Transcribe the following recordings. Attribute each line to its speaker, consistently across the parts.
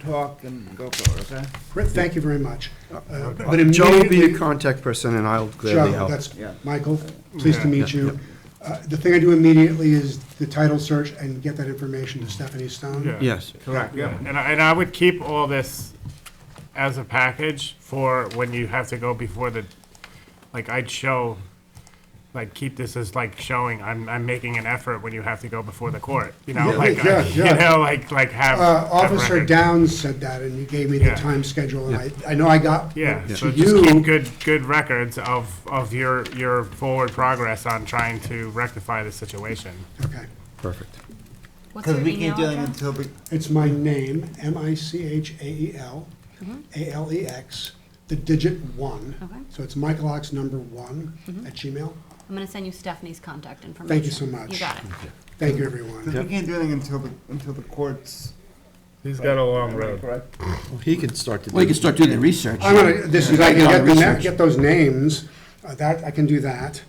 Speaker 1: talk and go for it, okay?
Speaker 2: Rick, thank you very much. Uh, But
Speaker 3: Joe will be
Speaker 2: immediately,
Speaker 3: your contact person, and I'll
Speaker 2: Joe,
Speaker 3: gladly help.
Speaker 2: that's
Speaker 1: Yeah.
Speaker 2: Michael, pleased to meet you. Uh, The thing I do immediately is the title search and get that information to Stephanie Stone.
Speaker 4: Yeah.
Speaker 3: Yes,
Speaker 1: Correct,
Speaker 4: Yeah, and I, and I would keep all this as a package for when you have to go before the, like, I'd show, like, keep this as like showing, I'm, I'm making an effort when you have to go before the court, you know,
Speaker 2: Yeah,
Speaker 4: like,
Speaker 2: yeah,
Speaker 4: I- you
Speaker 2: yeah.
Speaker 4: know, like, like have.
Speaker 2: Uh,
Speaker 4: have
Speaker 2: Officer
Speaker 4: record.
Speaker 2: Downs said that, and you gave me the
Speaker 4: Yeah.
Speaker 2: time schedule, and I, I know I got
Speaker 4: Yeah, so
Speaker 2: to
Speaker 4: just keep
Speaker 2: you.
Speaker 4: good, good records of, of your, your forward progress on trying to rectify the situation.
Speaker 2: Okay.
Speaker 3: perfect.
Speaker 5: What's
Speaker 1: Because
Speaker 5: your
Speaker 1: we keep
Speaker 5: email
Speaker 1: dealing
Speaker 5: address?
Speaker 1: until we,
Speaker 2: It's my name, M-I-C-H-A-E-L, A-L-E-X, E the digit one.
Speaker 5: Okay.
Speaker 2: So it's Michael Ox number one at Gmail.
Speaker 5: I'm gonna send you Stephanie's contact information.
Speaker 2: Thank you so much.
Speaker 5: You got it.
Speaker 2: Thank you,
Speaker 1: because
Speaker 2: everyone.
Speaker 1: we can't do anything until, the- until the courts.
Speaker 4: He's got a long
Speaker 1: Am I
Speaker 4: road.
Speaker 1: correct?
Speaker 3: He can start to.
Speaker 6: Well, you can start doing the research.
Speaker 2: I'm gonna, this is, I
Speaker 6: Yeah.
Speaker 2: can get the, na-
Speaker 6: Research.
Speaker 2: get those names, uh, that, I can do that.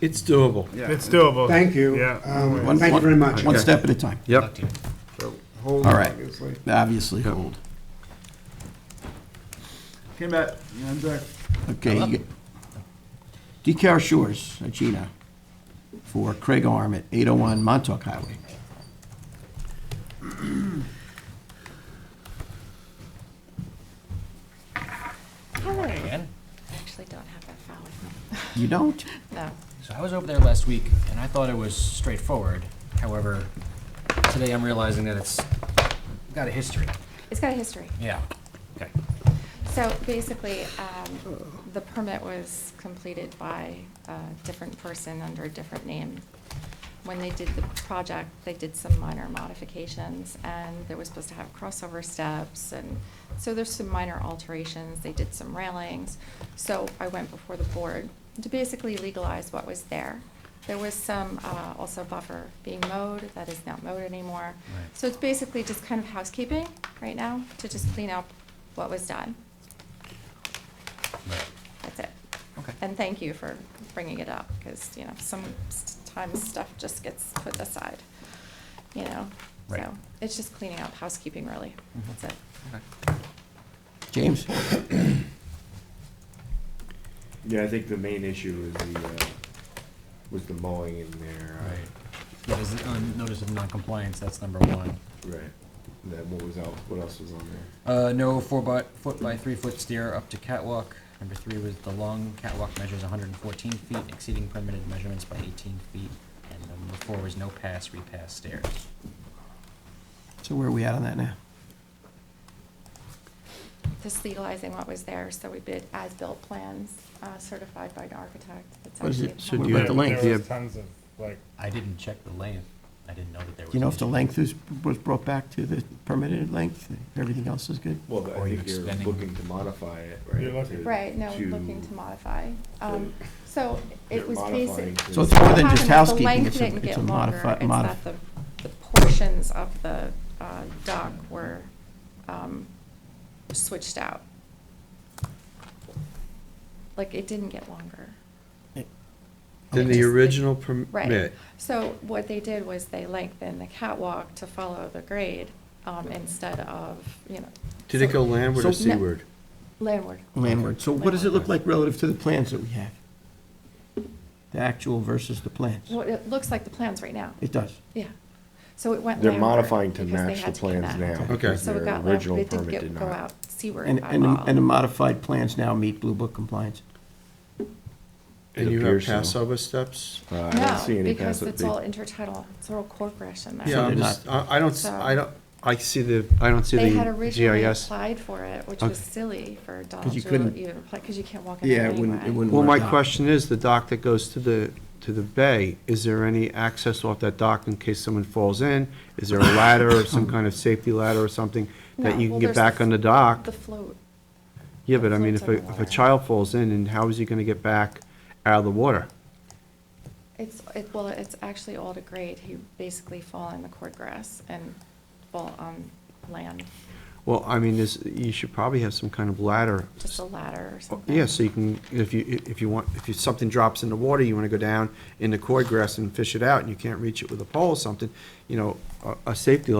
Speaker 3: It's doable.
Speaker 1: Yeah.
Speaker 4: It's doable.
Speaker 2: Thank you.
Speaker 4: Yeah.
Speaker 2: Um,
Speaker 6: One-
Speaker 2: Thank you
Speaker 6: one-
Speaker 2: very much.
Speaker 6: One step at a time,
Speaker 3: Yep,
Speaker 1: So, Hold,
Speaker 6: All right.
Speaker 1: obviously.
Speaker 6: obviously, hold.
Speaker 1: Came back, you know, Jack.
Speaker 6: Okay. you get- DeCar Shores, Gina, for Craig Arm at 801 Montauk Highway.
Speaker 7: actually don't have that file with me.
Speaker 6: You don't?
Speaker 7: No.
Speaker 8: So I was over there last week, and I thought it was straightforward. However, today I'm realizing that it's got a history.
Speaker 7: It's got a history.
Speaker 8: Yeah. Okay.
Speaker 7: So basically, um, the permit was completed by a different person under a different name. When they did the project, they did some minor modifications, and they were supposed to have crossover steps, and so there's some minor alterations, they did some railings. So I went before the board to basically legalize what was there. There was some, uh, also buffer being mowed, that is not mowed anymore.
Speaker 8: Right.
Speaker 7: So it's basically just kind of housekeeping right now, to just clean up what was done.
Speaker 8: Right.
Speaker 7: That's it.
Speaker 8: Okay.
Speaker 7: And thank you for bringing it up, because, you know, sometimes stuff just gets put aside, you know?
Speaker 8: Right. Mm-hmm.
Speaker 7: So it's just cleaning up, housekeeping, really. That's it.
Speaker 6: James?
Speaker 9: Yeah, I think the main issue is the, uh, was the mowing in there. uh,
Speaker 8: That is a notice of non-compliance, that's number one.
Speaker 9: Right. And then what was out, what else was on there?
Speaker 8: Uh, no four by, foot by three foot stair up to catwalk. Number three was the long catwalk measures hundred and fourteen feet, exceeding permitted measurements by eighteen feet. And number four was no pass, repass stairs.
Speaker 6: So where are we at on that now?
Speaker 7: Just legalizing what was there, so we did as-built plans uh, certified by an architect. It's
Speaker 6: What is
Speaker 7: actually
Speaker 6: it? So
Speaker 7: a-
Speaker 6: do
Speaker 4: There-
Speaker 6: you- the length,
Speaker 4: There
Speaker 3: yeah.
Speaker 4: was tons of, like,
Speaker 8: I didn't check the length. I didn't know that there was.
Speaker 6: Do you know
Speaker 8: an
Speaker 6: if the
Speaker 8: issue.
Speaker 6: length is, was brought back to the permitted length? Everything else is good?
Speaker 9: Well,
Speaker 8: Or
Speaker 9: I
Speaker 8: you're
Speaker 9: think you're
Speaker 8: extending-
Speaker 9: looking to modify it, right?
Speaker 4: You're looking-
Speaker 9: to-
Speaker 7: Right, no, looking to modify. Um, So it
Speaker 9: You're
Speaker 7: was
Speaker 9: modifying
Speaker 7: basic.
Speaker 9: to-
Speaker 6: So it's more than
Speaker 7: What
Speaker 6: just
Speaker 7: happened is
Speaker 6: housekeeping, it's a,
Speaker 7: The length
Speaker 6: it's a
Speaker 7: didn't get longer,
Speaker 6: modified,
Speaker 7: it's
Speaker 6: modif,
Speaker 7: that the, the portions of the uh, dock were um, switched out. Like, it didn't get longer.
Speaker 3: Then
Speaker 7: Just
Speaker 3: the
Speaker 7: the-
Speaker 3: original
Speaker 7: Right.
Speaker 3: permit.
Speaker 7: So what they did was they lengthened the catwalk to follow the grade um, instead of, you know.
Speaker 3: Did it
Speaker 7: so-
Speaker 3: go landward or
Speaker 7: So- No.
Speaker 3: seaward?
Speaker 7: Landward.
Speaker 6: landward. So what does it look like relative to the plans that we have? The actual versus the plans?
Speaker 7: Well, it looks like the plans right now.
Speaker 6: It does.
Speaker 7: Yeah. So it went
Speaker 9: They're
Speaker 7: landward
Speaker 9: modifying to
Speaker 7: because they
Speaker 9: match the
Speaker 7: had to
Speaker 9: plans
Speaker 7: connect.
Speaker 9: now.
Speaker 3: Okay.
Speaker 9: because
Speaker 7: So it
Speaker 9: their
Speaker 7: got
Speaker 9: original
Speaker 7: landward, it didn't
Speaker 9: permit
Speaker 7: get,
Speaker 9: did
Speaker 7: go
Speaker 9: not.
Speaker 7: out seaward
Speaker 6: And,
Speaker 7: by
Speaker 6: and,
Speaker 7: law.
Speaker 6: and the modified plans now meet Blue Book compliance?
Speaker 9: It
Speaker 3: And you have
Speaker 9: appears so.
Speaker 3: Passover steps?
Speaker 9: Uh, I don't see
Speaker 7: No,
Speaker 9: any
Speaker 7: because
Speaker 9: pass
Speaker 7: it's all intertidal, it's all corporation there.
Speaker 3: Yeah,
Speaker 6: they're
Speaker 3: I'm just, I I don't, s-
Speaker 7: So-
Speaker 3: I don't, I see the, I don't see
Speaker 7: They had
Speaker 3: the
Speaker 7: originally
Speaker 3: GIS.
Speaker 7: applied for it, which was
Speaker 3: Okay.
Speaker 7: silly for Donald
Speaker 6: 'Cause you
Speaker 7: Doolittle
Speaker 6: couldn't-
Speaker 7: even apply, because you can't walk in
Speaker 6: Yeah,
Speaker 7: there
Speaker 6: it wouldn't, it
Speaker 7: anyway.
Speaker 6: wouldn't
Speaker 3: Well, my
Speaker 6: work out.
Speaker 3: question is, the dock that goes to the, to the bay, is there any access off that dock in case someone falls in? Is there a ladder or some kind of safety ladder or something
Speaker 7: No,
Speaker 3: that you can
Speaker 7: well,
Speaker 3: get
Speaker 7: there's
Speaker 3: back on the dock?
Speaker 7: The float,
Speaker 3: Yeah, but I mean, if a,
Speaker 7: floats on the
Speaker 3: if a
Speaker 7: water.
Speaker 3: child falls in, and how is he gonna get back out of the water?
Speaker 7: it's, it, well, it's actually all to grade, he basically fall in the cord grass and fall on land,
Speaker 3: Well, I mean, this, you should probably have some kind of ladder. Oh,
Speaker 7: just a ladder or something.
Speaker 3: Yeah, so you can, if you, if you want, if you, something drops in the water, you wanna go down in the cord grass and fish it out, and you can't reach it with a pole or something, you know, a, a safety ladder